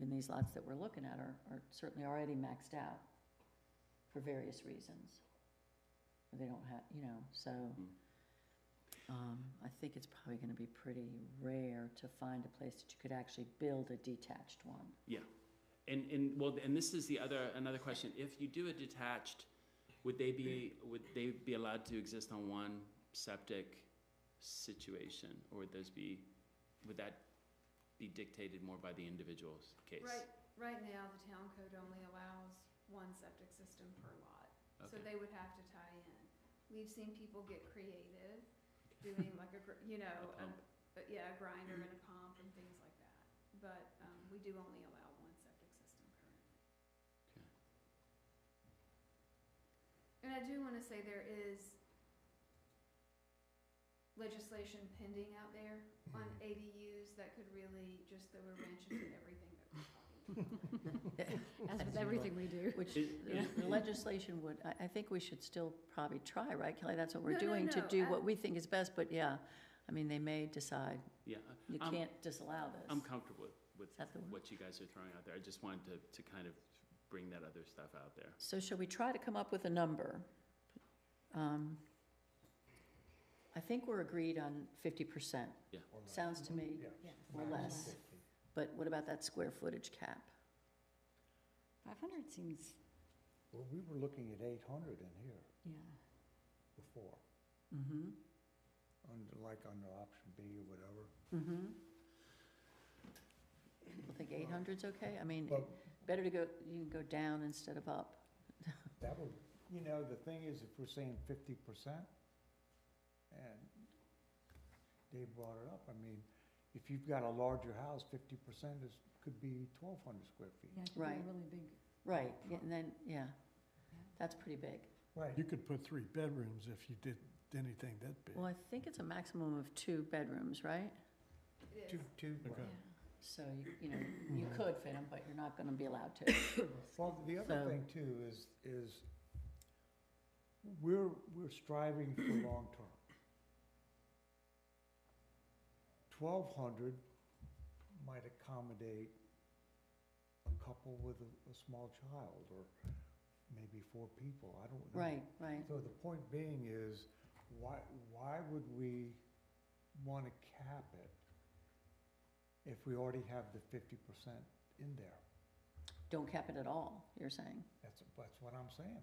and these lots that we're looking at are, are certainly already maxed out for various reasons. They don't have, you know, so, um, I think it's probably gonna be pretty rare to find a place that you could actually build a detached one. Yeah, and, and, well, and this is the other, another question, if you do a detached, would they be, would they be allowed to exist on one septic situation? Or would those be, would that be dictated more by the individual's case? Right, right now, the town code only allows one septic system per lot, so Okay. they would have to tie in. We've seen people get creative, doing like a, gr- you know, A a, pump. but yeah, a grinder and a pump and things like that. But, um, we do only allow one septic system currently. Okay. And I do wanna say there is legislation pending out there on Mm-hmm. ADUs that could really just throw a wrench into everything that we're talking about. As As with you everything we do. Which It- it- the legislation would, I, I think we should still probably try, right, Kelly? That's what we're No, no, doing, to no, do I- what we think is best, but yeah, I mean, they may decide Yeah, you I'm- can't disallow this. I'm comfortable with, Is that the with word? what you guys are throwing out there, I just wanted to, to kind of bring that other stuff out there. So shall we try to come up with a number? Um, I think we're agreed on fifty percent, or not. sounds to me, Mm-hmm. Yeah. or Max less. 50. but what about that square footage cap? Five hundred seems, Well, we were looking at eight hundred in here yeah. before, Mm-hmm, under, like under option B or whatever. mm-hmm. I think eight hundred's okay, I mean, But better to go, you can go down instead of up. that would, you know, the thing is, if we're saying fifty percent, and Dave brought it up, I mean, if you've got a larger house, fifty percent is, could be twelve hundred square feet. Yeah, it could be a Right. really big. Right, yeah, and then, yeah, that's pretty big. Right. You could put three bedrooms if you did anything that big. Well, I think it's a maximum of two bedrooms, right? It Two, is. two, Okay. Yeah. So, you- you know, you could fit them, but you're not gonna be allowed to. Well, the So- other thing too is, is we're, we're striving for long-term. Twelve hundred might accommodate a couple with a, a small child, or maybe four people, I don't know. Right, right, So the point being is, why, why would we wanna cap it if we already have the fifty percent in there? don't cap it at all, you're saying? That's, that's what I'm saying.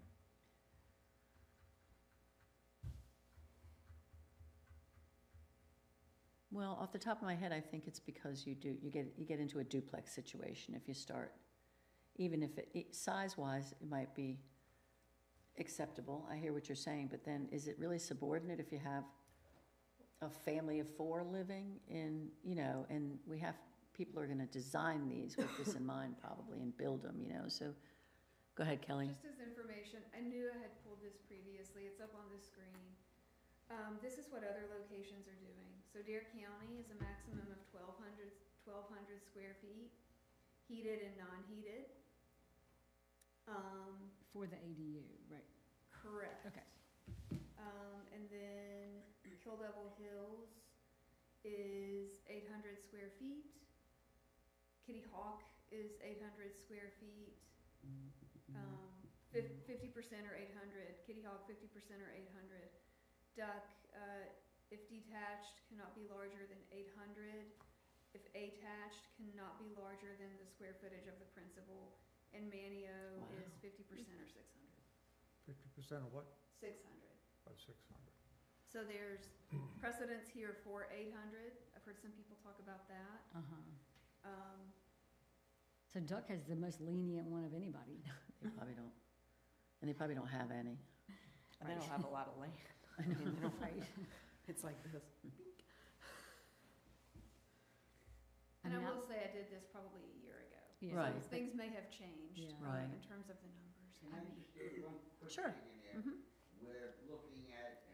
Well, off the top of my head, I think it's because you do, you get, you get into a duplex situation if you start. Even if it, it- size-wise, it might be acceptable, I hear what you're saying, but then is it really subordinate if you have a family of four living in, you know, and we have, people are gonna design these with this in mind probably and build them, you know, so, go ahead, Kelly. Just as information, I knew I had pulled this previously, it's up on the screen. Um, this is what other locations are doing. So Dare County is a maximum of 1,200 1,200 square feet, heated and non-heated. Um, For the ADU, right, correct. okay. Um, and then Kill Devil Hills is eight hundred square feet. Kitty Hawk is eight hundred square feet. Um, fifty percent or eight hundred, Kitty Hawk fifty percent or eight hundred. Duck, uh, if detached, cannot be larger than eight hundred. If attached, cannot be larger than the square footage of the principal. And Manio is Wow. fifty percent or six hundred. Fifty percent of what? Six hundred. Of six hundred. So there's precedence here for eight hundred, I've heard some people talk about that, Uh-huh. um, So Duck has the most lenient one of anybody. They probably don't, and they probably don't have any. And they don't have a lot of land. I mean, they don't- It's like this. and I mean, will say I did this probably a year ago. yeah, Right. So Things may have changed, Yeah. um, Right. in terms of the numbers, I Yeah. mean, Just one quick Sure. thing in there. We're looking at